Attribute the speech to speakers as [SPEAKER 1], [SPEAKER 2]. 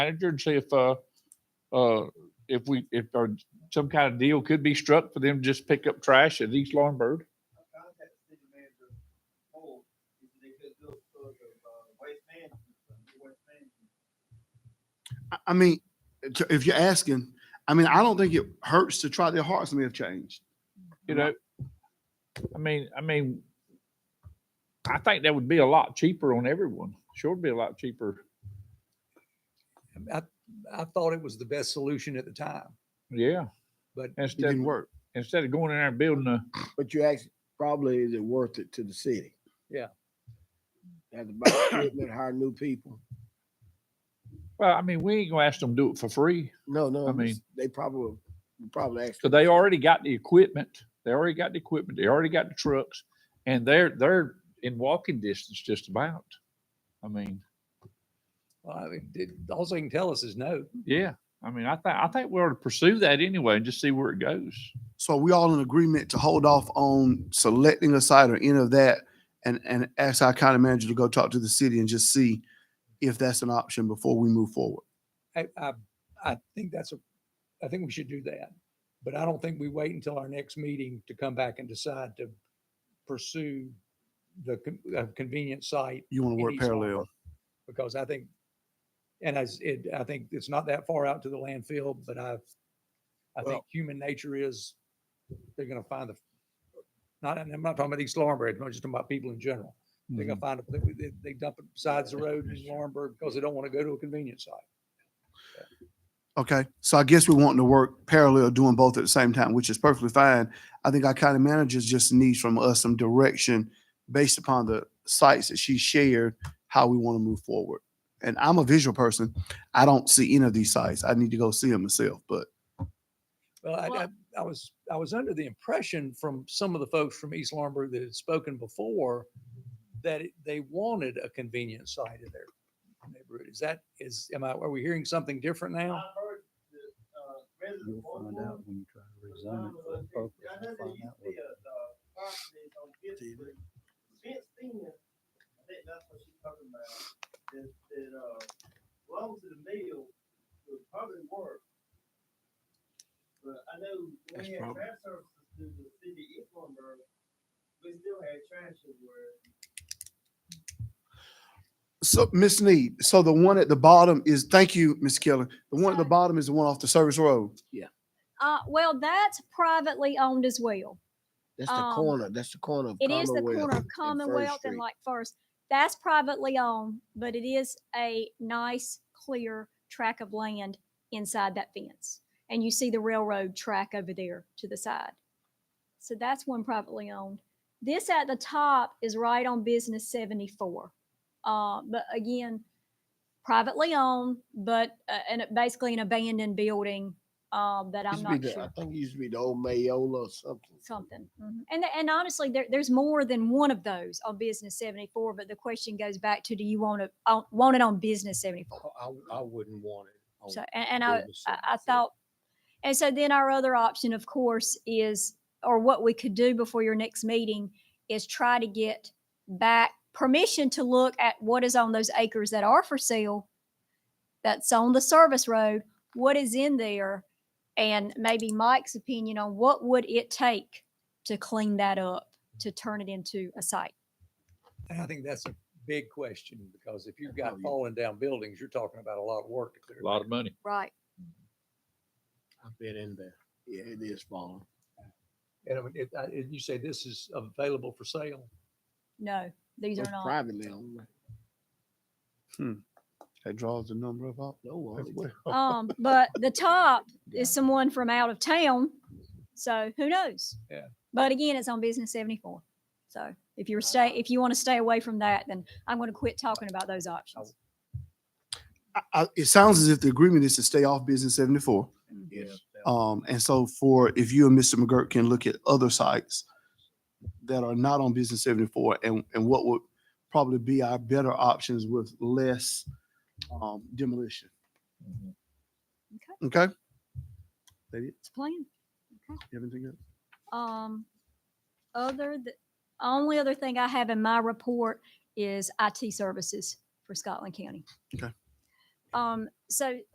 [SPEAKER 1] manager and see if, uh, uh, if we, if our, some kind of deal could be struck for them to just pick up trash at East Lawrenceburg.
[SPEAKER 2] I contacted city manager, Paul, if they could do a sort of, uh, waste management, something, waste management.
[SPEAKER 3] I- I mean, t- if you're asking, I mean, I don't think it hurts to try their hearts may have changed. Mm-hmm.
[SPEAKER 1] you know, I mean, I mean, I think that would be a lot cheaper on everyone. Sure would be a lot cheaper.
[SPEAKER 4] I, I thought it was the best solution at the time,
[SPEAKER 1] Yeah.
[SPEAKER 4] but
[SPEAKER 3] It
[SPEAKER 1] Instead,
[SPEAKER 3] didn't work.
[SPEAKER 1] instead of going in there and building a,
[SPEAKER 5] But you ask, probably is it worth it to the city?
[SPEAKER 4] Yeah.
[SPEAKER 5] Have to buy equipment, hire new people.
[SPEAKER 1] well, I mean, we ain't gonna ask them to do it for free.
[SPEAKER 5] No, no,
[SPEAKER 1] I
[SPEAKER 5] I'm just-
[SPEAKER 1] mean-
[SPEAKER 5] they probably, probably asked.
[SPEAKER 1] So they already got the equipment. They already got the equipment. They already got the trucks and they're, they're in walking distance just about. I mean,
[SPEAKER 4] well, I mean, it, all they can tell us is no.
[SPEAKER 1] yeah. I mean, I think, I think we ought to pursue that anyway and just see where it goes.
[SPEAKER 3] So are we all in agreement to hold off on selecting a site or any of that and, and ask our county manager to go talk to the city and just see if that's an option before we move forward?
[SPEAKER 4] I, I, I think that's a, I think we should do that. But I don't think we wait until our next meeting to come back and decide to pursue the con- uh, convenient site
[SPEAKER 3] You want to
[SPEAKER 4] in
[SPEAKER 3] work
[SPEAKER 4] East Long
[SPEAKER 3] parallel?
[SPEAKER 4] because I think, and as it, I think it's not that far out to the landfill, but I, I think
[SPEAKER 5] Well-
[SPEAKER 4] human nature is, they're gonna find the, not, and I'm not talking about East Laurinburg, I'm just talking about people in general. They're gonna find, a pla- they, they dump it besides the road in Laurinburg because they don't want to go to a convenience site.
[SPEAKER 3] Okay, so I guess we're wanting to work parallel, doing both at the same time, which is perfectly fine. I think our county managers just needs from us some direction based upon the sites that she shared, how we want to move forward. And I'm a visual person. I don't see any of these sites. I need to go see them myself, but
[SPEAKER 4] Well, I, I,
[SPEAKER 6] Well-
[SPEAKER 4] I was, I was under the impression from some of the folks from East Laurinburg that had spoken before that it- they wanted a convenience site in their neighborhood. Is that, is, am I, are we hearing something different now?
[SPEAKER 2] I've heard the, uh, resident
[SPEAKER 6] You'll
[SPEAKER 2] one
[SPEAKER 6] find out when you try to rezone it for appropriate,
[SPEAKER 2] I know there
[SPEAKER 6] you'll find
[SPEAKER 2] used
[SPEAKER 6] out
[SPEAKER 2] to
[SPEAKER 6] what
[SPEAKER 2] be a, uh, property on Gibson, fenced in, I think that's what she's talking about, that, that, uh, belongs to the mill, would probably work. But I know when
[SPEAKER 3] That's
[SPEAKER 2] we had
[SPEAKER 3] probably-
[SPEAKER 2] trash services to the city of Eatonburg, we still had trash everywhere.
[SPEAKER 3] So, Miss Need, so the one at the bottom is, thank you, Miss Keller. The one at the bottom is the one off the service road.
[SPEAKER 6] Uh, well, that's privately owned as well.
[SPEAKER 5] That's the
[SPEAKER 6] um,
[SPEAKER 5] corner, that's the corner of
[SPEAKER 6] It is the
[SPEAKER 5] Commonwealth
[SPEAKER 6] corner of
[SPEAKER 5] and First
[SPEAKER 6] Commonwealth and
[SPEAKER 5] Street.
[SPEAKER 6] like First. That's privately owned, but it is a nice, clear track of land inside that fence. And you see the railroad track over there to the side. So that's one privately owned. This at the top is right on Business 74. Uh, but again, privately owned, but, uh, and it- basically an abandoned building, um, that I'm
[SPEAKER 5] Used to be
[SPEAKER 6] not
[SPEAKER 5] the-
[SPEAKER 6] sure
[SPEAKER 5] I think it used to be the old Mayola or something.
[SPEAKER 6] something. Mhm. And th- and honestly, there, there's more than one of those on Business 74. But the question goes back to: Do you want to uh, want it on Business 74?
[SPEAKER 7] I, I- I wouldn't want it.
[SPEAKER 5] Oh,
[SPEAKER 7] on
[SPEAKER 6] So and, and I,
[SPEAKER 7] Business
[SPEAKER 6] I I
[SPEAKER 7] 74.
[SPEAKER 6] thought, and so then our other option, of course, is or what we could do before your next meeting is try to get back permission to look at what is on those acres that are for sale, that's on the service road. What is in there? And maybe Mike's opinion on what would it take to clean that up, to turn it into a site?
[SPEAKER 4] And I think that's a big question because if you've
[SPEAKER 5] Oh,
[SPEAKER 4] got
[SPEAKER 5] yeah.
[SPEAKER 4] falling down buildings, you're talking about a lot of work to clear.
[SPEAKER 1] A lot of money.
[SPEAKER 6] Right.
[SPEAKER 7] I've been in there.
[SPEAKER 5] Yeah, it is falling.
[SPEAKER 4] And I mean, if, I- if you say this is available for sale,
[SPEAKER 6] No, these
[SPEAKER 5] It's
[SPEAKER 6] are not.
[SPEAKER 5] privately owned.
[SPEAKER 3] That draws the number of up.
[SPEAKER 5] No one.
[SPEAKER 6] Um, but the top
[SPEAKER 4] Yeah.
[SPEAKER 6] is someone from out of town, so who knows?
[SPEAKER 4] Yeah.
[SPEAKER 6] But again, it's on business seventy-four. So if you're stay, if you want to stay away from that, then I'm going to quit talking about those options.
[SPEAKER 3] I, I, it sounds as if the agreement is to stay off business seventy-four.
[SPEAKER 5] Yes.
[SPEAKER 3] Um, and so for, if you and Mr. McGurk can look at other sites that are not on business seventy-four and, and what would probably be our better options with less, um, demolition. Okay?
[SPEAKER 6] It's a plan.
[SPEAKER 3] You have anything else?
[SPEAKER 6] Um, other the only other thing I have in my report is IT services for Scotland County.
[SPEAKER 3] Okay.
[SPEAKER 6] Um, so